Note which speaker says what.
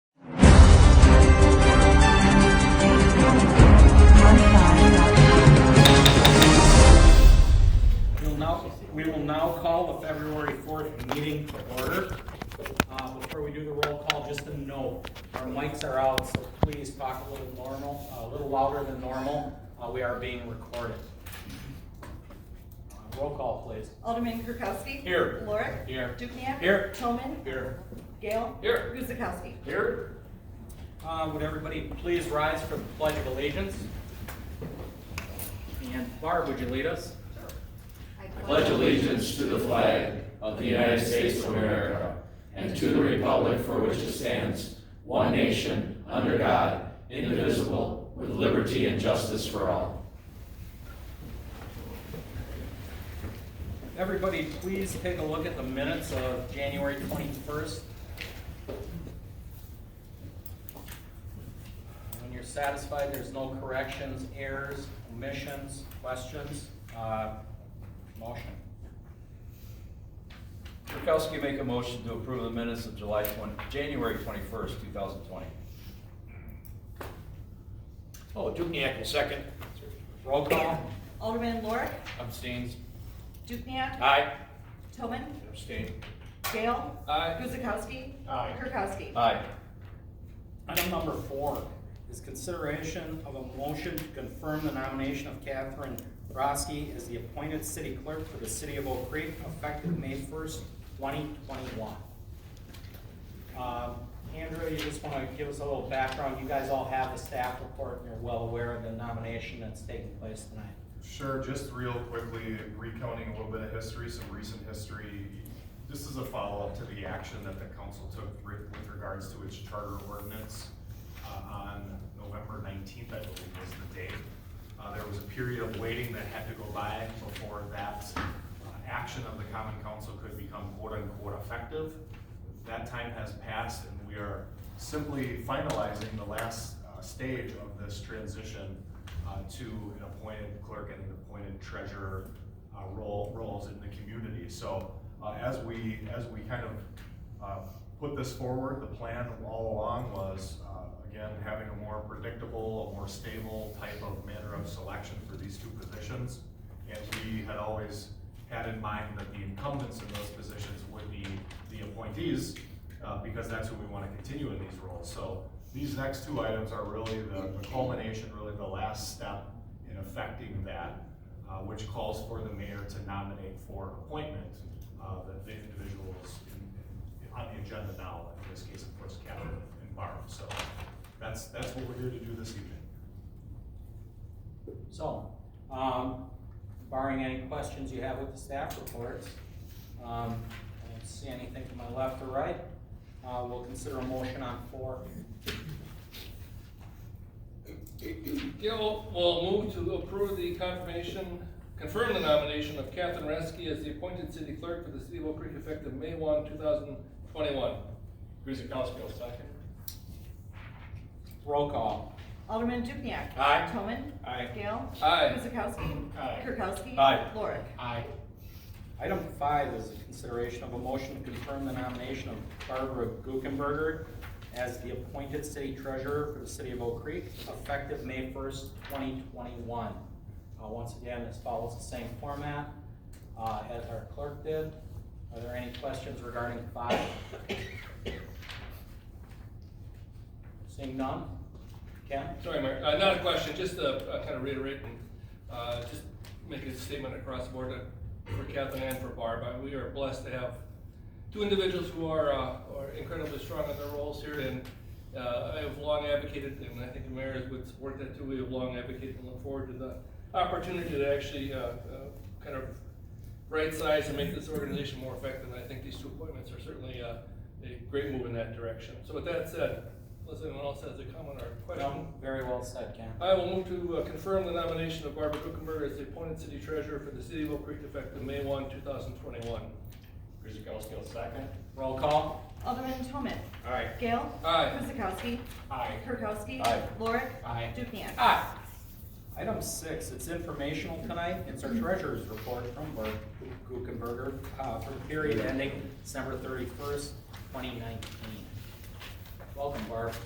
Speaker 1: Uh, so our mics are out, so please talk a little normal, a little louder than normal. Uh, We are being recorded. Uh, Roll call, please.
Speaker 2: Alderman Kirkowski.
Speaker 1: Here.
Speaker 2: Lorik.
Speaker 1: Here.
Speaker 2: Dukenyak.
Speaker 1: Here.
Speaker 2: Toman.
Speaker 1: Here.
Speaker 2: Gale.
Speaker 1: Here.
Speaker 2: Guzekowski.
Speaker 1: Here. Uh, Would everybody please rise for the pledge of allegiance? And Barb, would you lead us?
Speaker 3: I pledge allegiance to the flag of the United States of America and to the republic for which it stands, one nation, under God, indivisible, with liberty and justice for all.
Speaker 1: Everybody, please take a look at the minutes of January 21st. When you're satisfied, there's no corrections, errors, omissions, questions, uh, motion.
Speaker 4: Kirkowski make a motion to approve the minutes of July 20, January 21st, 2020.
Speaker 5: Oh, Dukenyak will second.
Speaker 1: Roll call.
Speaker 2: Alderman Lorik.
Speaker 5: Abstains.
Speaker 2: Dukenyak.
Speaker 5: Aye.
Speaker 2: Toman.
Speaker 5: Abstain.
Speaker 2: Gale.
Speaker 5: Aye.
Speaker 2: Guzekowski.
Speaker 5: Aye.
Speaker 2: Kirkowski.
Speaker 4: Aye.
Speaker 1: Item number four is consideration of a motion to confirm the nomination of Catherine Roski as the appointed city clerk for the city of Oak Creek effective May first, twenty twenty-one. Uh, Andrew, you just want to give us a little background. You guys all have the staff report and you're well aware of the nomination that's taking place tonight.
Speaker 6: Sure, just real quickly recounting a little bit of history, some recent history. This is a follow-up to the action that the council took re- with regards to its charter ordinance uh, on November nineteenth, I believe was the date. Uh, There was a period of waiting that had to go by before that uh, action of the common council could become quote-unquote effective. That time has passed and we are simply finalizing the last uh, stage of this transition uh, to an appointed clerk and an appointed treasurer uh, role, roles in the community. So uh, as we, as we kind of uh, put this forward, the plan all along was, uh, again, having a more predictable, a more stable type of manner of selection for these two positions. And we had always had in mind that the incumbents in those positions would be the appointees, uh, because that's who we want to continue in these roles. So these next two items are really the the culmination, really the last step in affecting that, uh, which calls for the mayor to nominate for appointment uh, the the individuals in- in- on the agenda now, in this case, of course, Catherine and Barb. So that's, that's what we're here to do this evening.
Speaker 1: So, um, barring any questions you have with the staff reports, um, I don't see anything to my left or right. Uh, we'll consider a motion on four.
Speaker 7: Gill will move to approve the confirmation, confirm the nomination of Catherine Reski as the appointed city clerk for the city of Oak Creek effective May one, two thousand twenty-one. Guzekowski will second.
Speaker 1: Roll call.
Speaker 2: Alderman Dukenyak.
Speaker 5: Aye.
Speaker 2: Toman.
Speaker 5: Aye.
Speaker 2: Gale.
Speaker 7: Aye.
Speaker 2: Guzekowski.
Speaker 5: Aye.
Speaker 2: Kirkowski.
Speaker 4: Aye.
Speaker 2: Lorik.
Speaker 5: Aye.
Speaker 1: Item five is a consideration of a motion to confirm the nomination of Barbara Guckenberger as the appointed city treasurer for the city of Oak Creek, effective May first, twenty twenty-one. Uh, once again, this follows the same format, uh, as our clerk did. Are there any questions regarding five? Seeing none? Ken?
Speaker 7: Sorry, Mark, uh, not a question, just to kind of reiterate and, uh, just make a statement across the board uh, for Kathleen and for Barb. Uh, We are blessed to have two individuals who are, uh, are incredibly strong in their roles here and, uh, I have long advocated, and I think the mayor would support that too, we have long advocated and look forward to the opportunity to actually, uh, uh, kind of right size and make this organization more effective. And I think these two appointments are certainly, uh, a great move in that direction. So with that said, unless anyone else has a comment or question.
Speaker 1: No? Very well said, Ken.
Speaker 7: I will move to uh, confirm the nomination of Barbara Kuchenberger as the appointed city treasurer for the city of Oak Creek effective May one, two thousand twenty-one.
Speaker 5: Guzekowski will second.
Speaker 1: Roll call.
Speaker 2: Alderman Toman.
Speaker 5: Aye.
Speaker 2: Gale.
Speaker 7: Aye.
Speaker 2: Guzekowski.
Speaker 5: Aye.
Speaker 2: Kirkowski.
Speaker 5: Aye.
Speaker 2: Lorik.
Speaker 5: Aye.
Speaker 2: Dukenyak.
Speaker 1: Item six, it's informational tonight, it's our treasurer's report from Bert Guckenberger, uh, for the period ending December thirty-first, twenty nineteen. Welcome, Barb.